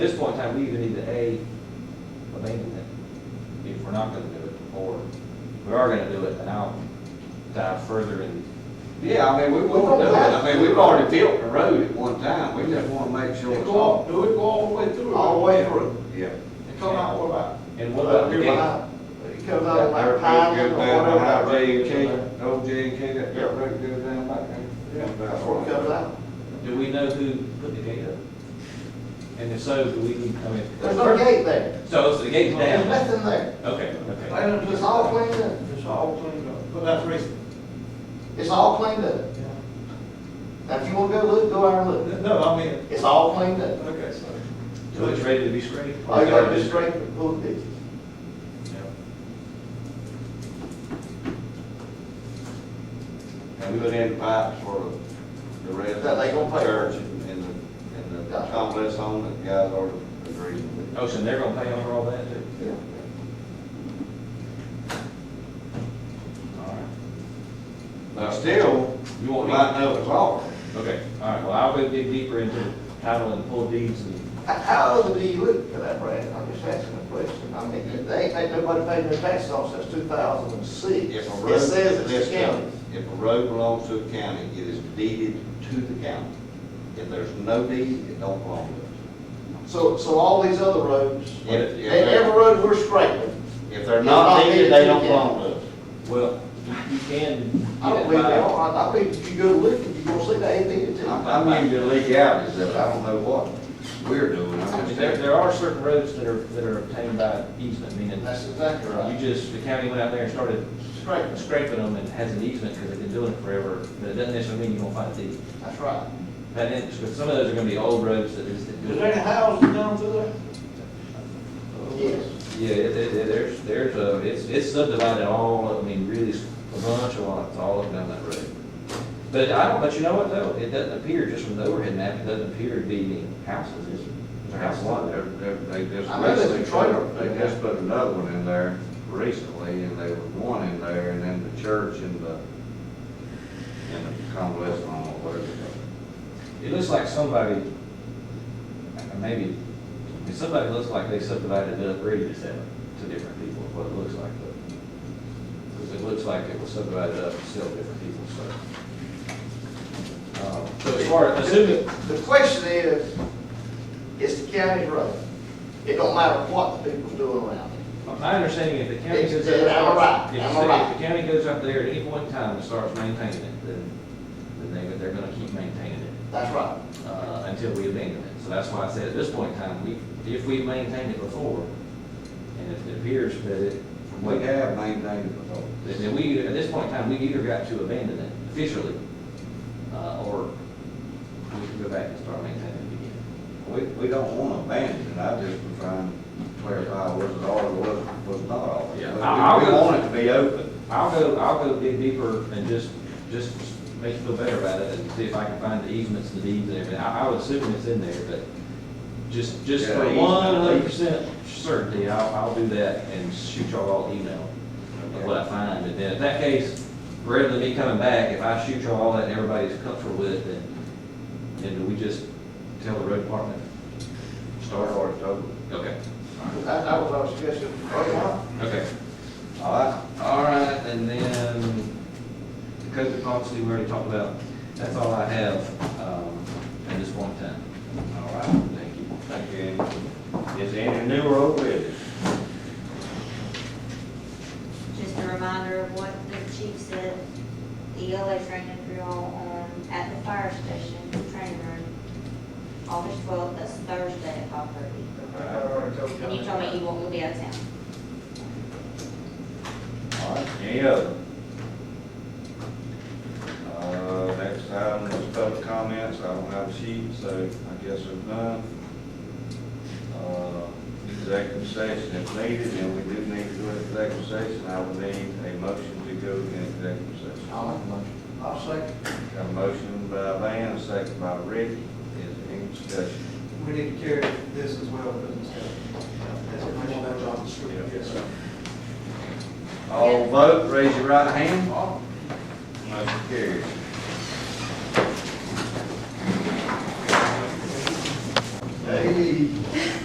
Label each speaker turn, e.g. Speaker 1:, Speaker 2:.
Speaker 1: At this point in time, we either need to A, abandon it, if we're not gonna do it, or we are gonna do it, and I'll dive further in. Yeah, I mean, we will do it, I mean, we've already built the road at one time, we just wanna make sure
Speaker 2: It
Speaker 1: it's
Speaker 2: go all,
Speaker 1: all.
Speaker 2: do it go all the way through?
Speaker 3: All the way through.
Speaker 4: Yeah.
Speaker 2: It come out what about?
Speaker 1: And what about the
Speaker 3: Here
Speaker 1: gate?
Speaker 3: behind. It comes out of my pile or
Speaker 4: Good down behind J and
Speaker 3: whatever.
Speaker 4: K, old J and K, that dirt road goes down back there.
Speaker 3: Yeah, that's where it comes out.
Speaker 1: Do we know who put the gate up? And if so, do we need to come in?
Speaker 3: There's no gate there.
Speaker 1: So, so the gate's
Speaker 3: There's
Speaker 1: down?
Speaker 3: nothing there.
Speaker 1: Okay, okay.
Speaker 3: It's all cleaned up.
Speaker 2: It's all cleaned up, but that's recent.
Speaker 3: It's all cleaned up. Now, if you wanna go look, go out and look.
Speaker 2: No, I mean,
Speaker 3: It's all cleaned up.
Speaker 2: okay, so.
Speaker 1: So it's ready to be sprayed?
Speaker 3: All Oh, you gotta do is straighten the pool ditches.
Speaker 4: And we put in pipes for the, the rest.
Speaker 3: That they gonna pay.
Speaker 4: Church and and the, and the
Speaker 3: Yeah.
Speaker 4: complex on that guys already agreed with.
Speaker 1: Oh, so they're gonna pay over all that too?
Speaker 3: Yeah.
Speaker 1: All right.
Speaker 4: Now, still,
Speaker 1: You
Speaker 4: you
Speaker 1: want
Speaker 4: won't
Speaker 1: me-
Speaker 4: light up at all.
Speaker 1: Okay, all right, well, I'll go dig deeper into title and full deeds and,
Speaker 3: How, how old do you look for that, Brad? I'm just asking a question. I mean, they ain't made nobody paid their taxes on since two thousand and six.
Speaker 4: If a road.
Speaker 3: It says it's
Speaker 4: listen,
Speaker 3: county.
Speaker 4: If a road belongs to a county, it is deeded to the county. If there's no deed, it don't belong to us.
Speaker 3: So, so all these other roads,
Speaker 4: Yeah,
Speaker 3: they-
Speaker 4: yeah.
Speaker 3: every road we're straightening,
Speaker 4: If they're
Speaker 3: It's
Speaker 4: not
Speaker 3: not
Speaker 4: deeded,
Speaker 3: deeded
Speaker 4: they
Speaker 3: to
Speaker 4: don't
Speaker 3: the
Speaker 4: belong to us.
Speaker 1: well, you can.
Speaker 3: I don't believe they are. I- I believe if you go look, you're gonna see they ain't did it.
Speaker 4: I I mean, the legalities of it, I don't know what we're doing. I
Speaker 1: I mean,
Speaker 4: just-
Speaker 1: There, there are certain roads that are, that are obtained by easement, meaning
Speaker 3: That's exactly
Speaker 1: you
Speaker 3: right.
Speaker 1: just, the county went out there and started
Speaker 3: Straight,
Speaker 1: scraping them and has an easement because they've been doing it forever, but it doesn't necessarily mean you won't find a deed.
Speaker 3: that's right.
Speaker 1: And then, because some of those are gonna be old roads that is. that do
Speaker 2: Is
Speaker 1: it.
Speaker 2: there any houses down through there?
Speaker 3: Yes.
Speaker 1: Yeah, it, it, it- there's, there's, uh, it's, it's subdivided all, I mean, really, s- a bunch of lots all up and down that road. But I don't, but you know what though, it doesn't appear, just from the overhead map, it doesn't appear to be any houses, is there? There's a house lot
Speaker 4: They're-
Speaker 1: there.
Speaker 4: they're- They just
Speaker 3: I know there's a
Speaker 4: recently,
Speaker 3: trailer.
Speaker 4: put- they just put another one in there recently, and there was one in there, and then the church and the, and the convalescent home, or whatever.
Speaker 1: It looks like somebody, uh, maybe, I mean, somebody looks like they subdivided it up, really, just to different people, what it looks like. Because it looks like it was subdivided up to sell different people, so. Uh, So as far, as assuming,
Speaker 3: The question is, it's the county's road. It don't matter what the people's doing around it.
Speaker 1: My understanding, if the county
Speaker 3: It's-
Speaker 1: goes
Speaker 3: it's-
Speaker 1: up,
Speaker 3: I'm right,
Speaker 1: if the
Speaker 3: I'm
Speaker 1: city-
Speaker 3: right.
Speaker 1: if the county goes up there at any point in time and starts maintaining it, then, then they, they're gonna keep maintaining it,
Speaker 3: That's right.
Speaker 1: uh, until we abandon it. So that's why I said at this point in time, we, if we've maintained it before, and if it appears that it,
Speaker 4: We have maintained it before.
Speaker 1: then we, at this point in time, we either got to abandon it officially, uh, or we can go back and start maintaining it again.
Speaker 4: We, we don't want to abandon it, I just was trying to clarify was it all or was, was not all.
Speaker 1: Yeah.
Speaker 4: But We we want it to be open.
Speaker 1: I'll go, I'll go dig deeper and just, just make you feel better about it and see if I can find the easements, the deeds and everything. I, I would assume it's in there, but just, just
Speaker 4: Yeah,
Speaker 1: for
Speaker 4: easement,
Speaker 1: one hundred percent certainty, I'll, I'll do that and shoot y'all all an email of what I find. And then in that case, rather than me coming back, if I shoot y'all all that and everybody's comfortable with it, then, then do we just tell the road department?
Speaker 4: Start or it's over.
Speaker 1: Okay,
Speaker 3: That, that was our suggestion.
Speaker 1: okay.
Speaker 4: All right,
Speaker 1: All right, and then the code of policy we already talked about. That's all I have um, at this point in time.
Speaker 4: all right.
Speaker 1: Thank you.
Speaker 4: Thank you. Is there any new or old business?
Speaker 5: Just a reminder of what the chief said, the ELA training drill on, at the fire station, the training room, August twelfth, that's Thursday at five thirty. And you told me you won't be out of town.
Speaker 4: All right, any other? Uh, next item is public comments, I don't have a sheet, so I guess there's none. Uh, Executive session if needed, and we do need to go into executive session, I would need a motion to go in executive session.
Speaker 3: I'll make a motion. I'll second.
Speaker 4: Got a motion by Van, a second by Ricky, is there any discussion?
Speaker 6: We need to carry this as well, business code. Yes, sir.
Speaker 4: All vote, raise your right hand. Motion carries.
Speaker 3: Hey, be